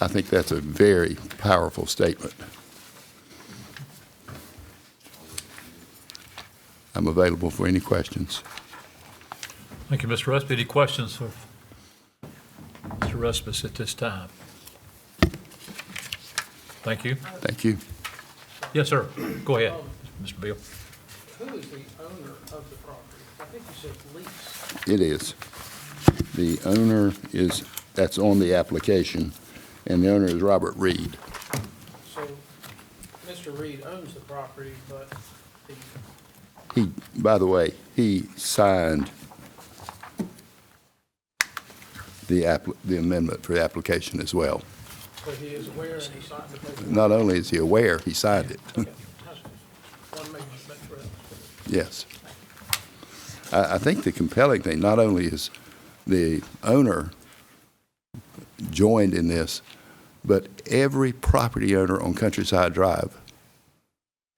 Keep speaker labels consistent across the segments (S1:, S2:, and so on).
S1: I think that's a very powerful statement. I'm available for any questions.
S2: Thank you, Mr. Rusby. Any questions for Mr. Rusbus at this time? Thank you.
S1: Thank you.
S2: Yes, sir. Go ahead, Mr. Bill.
S3: Who is the owner of the property? I think you said
S1: It
S3: lease.
S1: is. The owner is, that's on the application, and the owner is Robert Reed.
S3: So Mr. Reed owns the property, but the,
S1: He, by the way, he signed the app, the amendment for the application as well.
S3: but he is aware and he signed the paper.
S1: Not only is he aware, he signed it.
S3: One make make sure that-
S1: Yes. I, I think the compelling thing, not only is the owner joined in this, but every property owner on Countryside Drive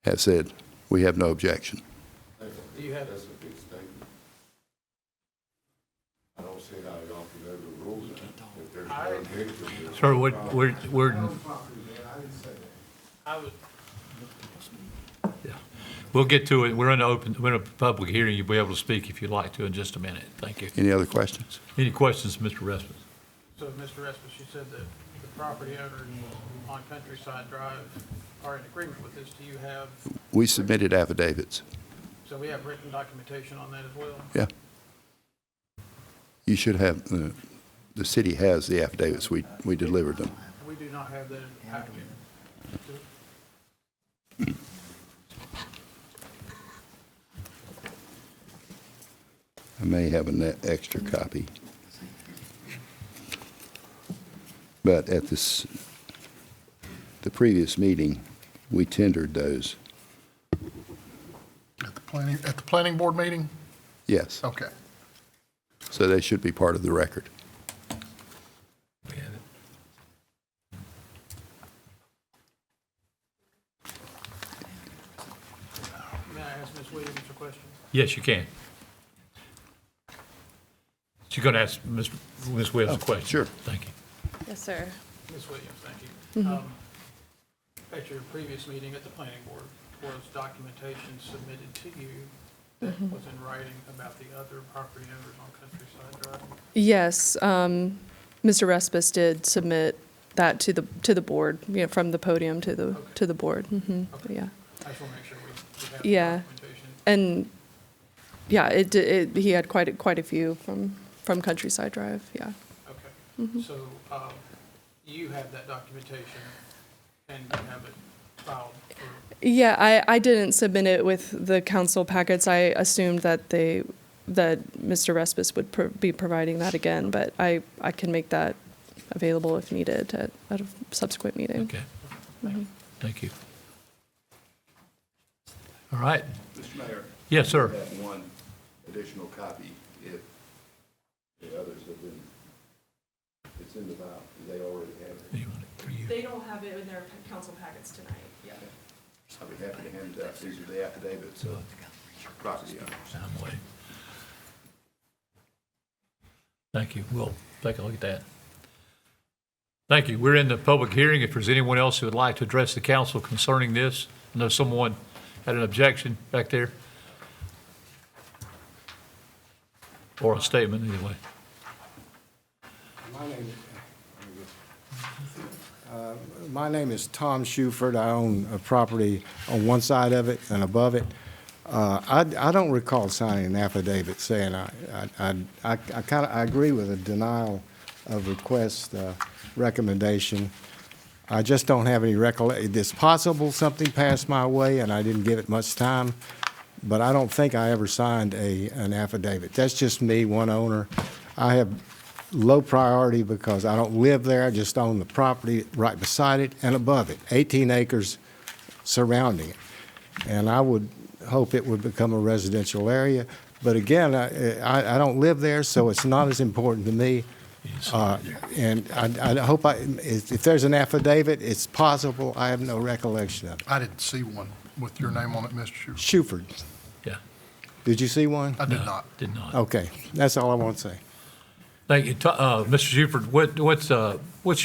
S1: has said, we have no objection.
S3: Do you have,
S4: That's a big statement. I don't see how y'all can overrule that. If there's no victim, there's
S2: Sir, we're, we're, we're-
S3: I would,
S2: we'll get to it. We're in the open, we're in a public hearing. You'll be able to speak if you'd like to in just a minute. Thank you.
S1: Any other questions?
S2: Any questions, Mr. Rusbus?
S3: so Mr. Espich, you said that the property owners on Countryside Drive are in agreement with this. Do you have,
S1: We submitted affidavits.
S3: so we have written documentation on that as well?
S1: Yeah. You should have, uh, the city has the affidavits. We, we delivered them.
S3: We do not have that in the packet. Do-
S1: I may have an e- extra copy. But at this, the previous meeting, we tendered those.
S5: At the planning, at the planning board meeting?
S1: Yes,
S5: Okay.
S1: so they should be part of the record.
S3: May I ask Ms. Williams a question?
S2: Yes, you can. She's going to ask Ms. Ms. Webb's a question.
S1: sure.
S2: Thank you.
S6: Yes, sir.
S3: Ms. Williams, thank you. Um, At your previous meeting at the planning board, was documentation submitted to you that was in writing about the other property owners on Countryside Drive?
S6: Yes, um, Mr. Respis did submit that to the, to the board, you know, from the podium to the, to the board. Mhm,
S3: Okay.
S6: Yeah.
S3: I just want to make sure we we have
S6: Yeah.
S3: the documentation.
S6: And, yeah, it, di- it, he had quite, a- quite a few from, from Countryside Drive, yeah.
S3: Okay. So um, you have that documentation and you have it filed for,
S6: Yeah, I, I didn't submit it with the council packets. I assumed that they, that Mr. Respis would pro- be providing that again, but I, I can make that available if needed at, at a subsequent meeting.
S2: Okay. Thank you. All right.
S4: Mr. Mayor.
S2: Yes, sir.
S4: That one additional copy, if the others have been, it's in the file, they already have it.
S2: You want it for you.
S6: They don't have it in their council packets tonight, yeah.
S4: I'd be happy to hand it out. These are the affidavits of property owners.
S2: Sound wave. Thank you. We'll take a look at that. Thank you. We're in the public hearing. If there's anyone else who would like to address the council concerning this, I know someone had an objection back there. Or a statement, either way.
S7: My name, uh, my name is Tom Shuford. I own a property on one side of it and above it. Uh, I, I don't recall signing an affidavit saying I, I, I, I kind of, I agree with a denial of request uh, recommendation. I just don't have any recollection. It's possible something passed my way and I didn't give it much time, but I don't think I ever signed a, an affidavit. That's just me, one owner. I have low priority because I don't live there, I just own the property right beside it and above it, 18 acres surrounding it. And I would hope it would become a residential area, but again, I, I- I don't live there, so it's not as important to me. Uh, And I, I hope I, if if there's an affidavit, it's possible, I have no recollection of it.
S5: I didn't see one with your name on it, Mr. Shue.
S7: Shuford,
S2: Yeah.
S7: did you see one?
S5: I did
S2: No,
S5: not.
S2: Did not.
S7: Oh. Okay, that's all I want to say.
S2: Thank you. To- uh, Mr. Shuford, what, what's, uh, what's